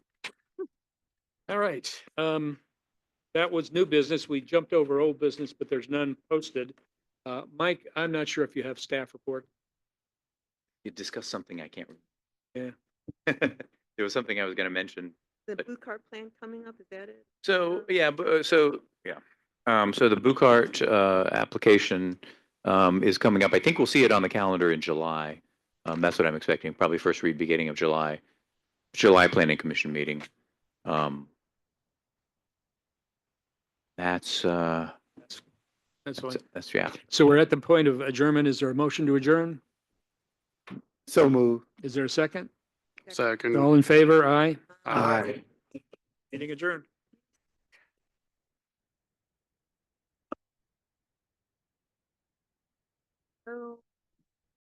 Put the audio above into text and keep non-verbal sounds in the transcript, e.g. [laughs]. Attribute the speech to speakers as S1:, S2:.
S1: All right, um, that was new business. We jumped over old business, but there's none posted. Uh, Mike, I'm not sure if you have staff report.
S2: You discussed something I can't.
S1: Yeah.
S2: remember. [laughs] There was something I was gonna mention.
S3: The
S2: But-
S3: Blue Card plan coming up, is that it?
S2: So, yeah, bu- uh, so, yeah. Um, so the Bucart, uh, application, um, is coming up. I think we'll see it on the calendar in July. Um, that's what I'm expecting, probably first read beginning of July, July Planning Commission meeting. Um, that's, uh,
S1: That's why.
S2: that's, that's- yeah.
S1: So we're at the point of adjournment. Is there a motion to adjourn?
S4: So move.
S1: Is there a second?
S4: Second.
S1: All in favor? Aye.
S4: Aye.
S1: Meeting adjourned.
S3: Oh.